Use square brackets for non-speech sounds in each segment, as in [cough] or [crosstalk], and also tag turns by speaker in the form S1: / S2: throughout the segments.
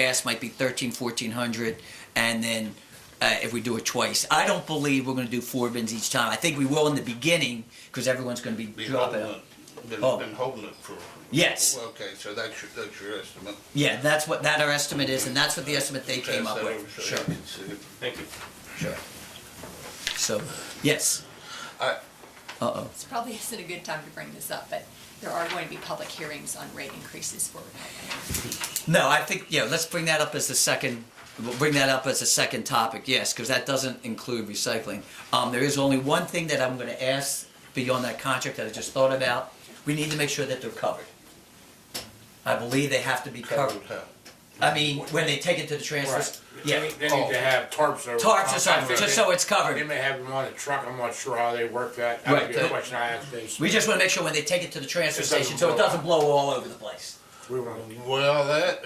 S1: ass might be 13, 1400, and then uh, if we do it twice. I don't believe we're going to do four bins each time. I think we will in the beginning because everyone's going to be
S2: Been
S1: dropping.
S2: holding it, been,
S1: Oh.
S2: been holding it for.
S1: Yes.
S2: Okay, so that's your, that's your estimate.
S1: Yeah, that's what that our estimate is, and that's what the estimate they came up with.
S2: So- so
S1: Sure,
S2: you can see it.
S3: Thank you.
S1: sure. So, yes.
S2: I,
S1: Uh oh.
S4: This probably isn't a good time to bring this up, but there are going to be public hearings on rate increases for
S1: No, I think yeah. Let's bring that up as the second. We'll bring that up as a second topic. Yes, because that doesn't include recycling. Um, there is only one thing that I'm going to ask beyond that contract that I just thought about. We need to make sure that they're covered. I believe they have to be covered.
S2: covered how?
S1: I mean, when they take it to the transfer.
S5: Right. They
S1: Yeah. Oh.
S5: need, they need to have tarps over.
S1: Tarps or something, just so it's
S5: They
S1: covered.
S5: may have them on a truck, I'm not sure how they work that, that would be
S1: Right.
S5: a question I asked Dave.
S1: We just want to make sure when they take it to the transfer
S5: It doesn't
S1: station, so it
S5: blow
S1: doesn't blow all over the place.
S5: We were-
S2: Well, that,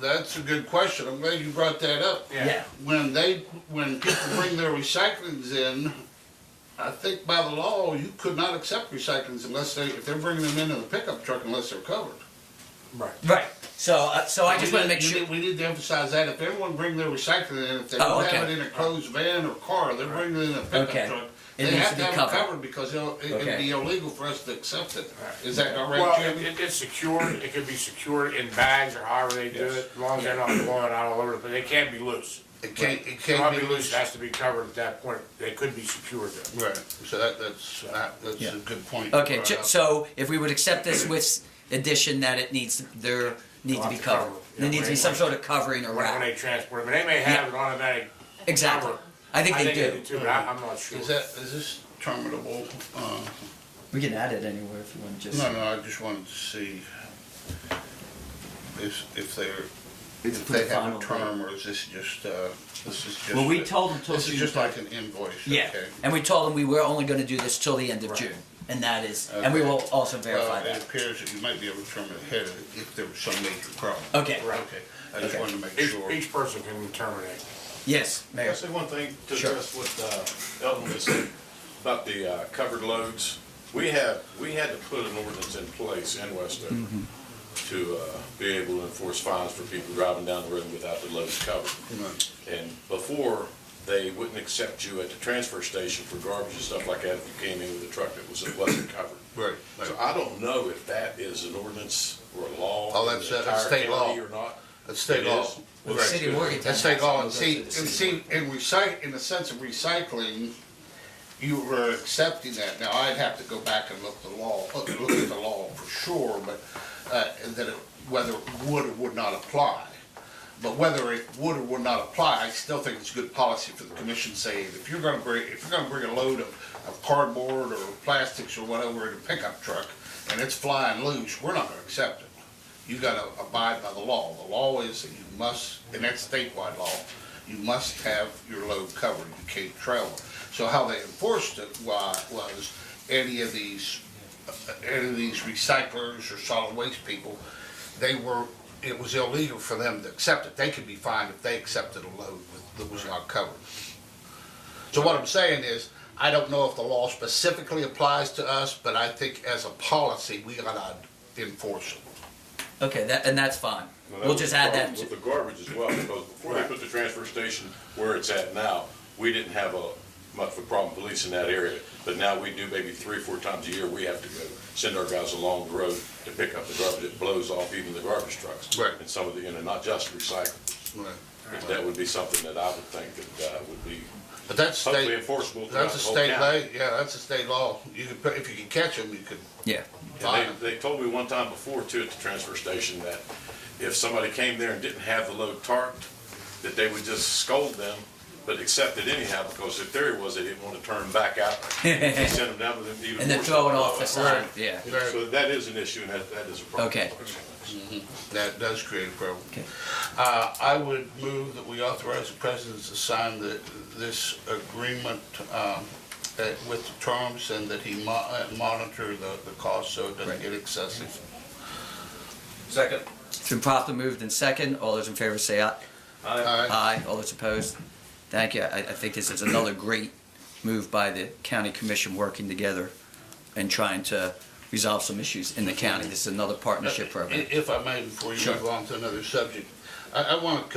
S2: that's a good question. I'm glad you brought that up.
S5: Yeah.
S1: Yeah.
S2: When they, when people bring their recyclings in, I think by the law, you could not accept recyclings unless they, if they're bringing them in in a pickup truck unless they're covered.
S5: Right.
S1: Right. So, uh, so I just
S2: We
S1: want to
S2: need-
S1: make
S2: we
S1: sure.
S2: need- We need to emphasize that, if everyone bring their recycling in, if they
S1: Oh,
S2: don't have
S1: okay.
S2: it in a closed van or car, they're bringing it in a
S1: Okay.
S2: pickup truck.
S1: It
S2: They
S1: needs
S2: have
S1: to
S2: to
S1: be
S2: have it
S1: covered.
S2: covered because it'll, it-
S1: Okay.
S2: it'd be illegal for us to accept it.
S5: Right.
S2: Is that not right,
S5: Well, it,
S2: Jim?
S5: it- it's secured, it could be secured in bags or however they do it, as long as they're not blowing out all over, but they can't be loose.
S2: It can't, it
S5: Cannot
S2: can't be loose.
S5: It has to be covered at that point, they could be secured though.
S2: Right, so that, that's, that- that's
S1: Yeah.
S2: a good point. Uh, you
S1: Okay,
S2: brought
S1: ju-
S2: up.
S1: so if we would accept this with addition that it needs, there need to be
S5: Lots of cover,
S1: covered.
S5: yeah,
S1: There needs to be some
S5: right.
S1: sort of covering or
S5: When, when they
S1: wrap.
S5: transport them, and they may have it on a bag.
S1: Exactly.
S5: cover.
S1: I think they do.
S5: too, but I, I'm not sure.
S2: Is that, is this terminable? Uh,
S1: We can add it anywhere if you want to
S2: No, no, I just wanted to see if, if they're,
S1: It's
S2: if
S1: put
S2: they
S1: the
S2: have
S1: final
S2: a
S1: date.
S2: term, or is this just, uh, this is just.
S1: Well, we
S2: a-
S1: told them till
S2: This is
S1: June
S2: just like an invoice,
S1: Yeah,
S2: okay?
S1: and we told them we were only gonna do this till the end of
S5: Right.
S1: June, and that is, and we
S2: Okay.
S1: will also
S2: Well,
S1: verify
S2: it
S1: that.
S2: appears that you might be able to determine ahead of- if there was some major problem.
S1: Okay,
S5: Right.
S2: Okay, I just
S1: Okay.
S2: wanted to make
S5: Each,
S2: sure.
S5: each person can terminate.
S1: yes,
S6: Can I
S1: Mayor.
S6: say one thing to
S1: Sure.
S6: address what uh, Elton was saying about the uh, covered loads? We have, we had to put an ordinance in place in Westover
S2: Mm-hmm.
S6: to uh, be able to enforce fines for people driving down the road without the loads covered.
S2: Right.
S6: And before, they wouldn't accept you at the transfer station for garbage and stuff like that if you came in with a truck that was, that wasn't covered.
S2: Right.
S6: So I don't know if that is an ordinance or a law.
S2: Oh, that's-
S6: in the
S2: that's
S6: entire
S2: state law.
S6: county Or not.
S2: That's state
S6: It
S2: law.
S6: is.
S1: Well, the
S2: Right.
S1: city of Morgantown
S2: That's state
S1: has
S2: law,
S1: to
S2: and
S1: go
S2: see,
S1: through
S2: and
S1: the city.
S2: see, in recite, in the sense of recycling, you were accepting that. Now, I'd have to go back and look the law, look look at the law for sure, but, uh, that it, whether it would or would not apply. But whether it would or would not apply, I still think it's good policy for the commission saying, if you're gonna bring, if you're gonna bring a load of, of cardboard or plastics or whatever in a pickup truck, and it's flying loose, we're not gonna accept it. You gotta abide by the law. The law is that you must, and that's statewide law, you must have your load covered, you can't travel. So how they enforced it wa- was any of these, any of these recyclers or solid waste people, they were, it was illegal for them to accept it. They could be fined if they accepted a load with- that was not covered. So what I'm saying is, I don't know if the law specifically applies to us, but I think as a policy, we gotta enforce it.
S1: Okay, that, and that's fine.
S6: Well, that
S1: We'll
S6: was
S1: just
S6: the
S1: add
S6: problem
S1: that. to-
S6: With the garbage as well, because before they put the transfer station where it's at now, we didn't have a, much of a problem policing that area. But now we do maybe three, four times a year, we have to go send our guys along the road to pick up the garbage. It blows off even the garbage trucks.
S2: Right.
S6: And some of the, you know, not just recycling. That would be something that I would think that uh, would be
S2: But that's
S6: hopefully
S2: state,
S6: enforceable throughout
S2: that's
S6: the
S2: a
S6: whole
S2: state
S6: county.
S2: law, yeah, that's a state law. You could, put- if you can catch them, you could
S1: Yeah,
S2: fine
S6: And
S2: them.
S6: they, they told me one time before too at the transfer station that if somebody came there and didn't have the load tarped, that they would just scold them, but accept it anyhow, because their theory was they didn't want to turn them back
S1: [laughs]
S6: out. They sent them down with them even.
S1: and then
S6: worse.
S1: throw it off the side, yeah.
S6: So that is an issue and that, that is a problem.
S1: Okay.
S2: That does create a problem.
S1: Okay.
S2: Uh, I would move that we authorize the president to sign the, this agreement, um, uh, with the terms and that he mo- uh, monitor the, the cost so it doesn't
S1: Right.
S2: get excessive.
S3: Second.
S1: It's been properly moved and second. All those in favor say aye.
S2: Aye.
S1: Aye. All those opposed? Thank you. I, I think this is another great move by the county commission working together and trying to resolve some issues in the county. This is another partnership
S2: I-
S1: program.
S2: If I may, before you
S1: Sure.
S2: move on to another subject, uh, I, I want to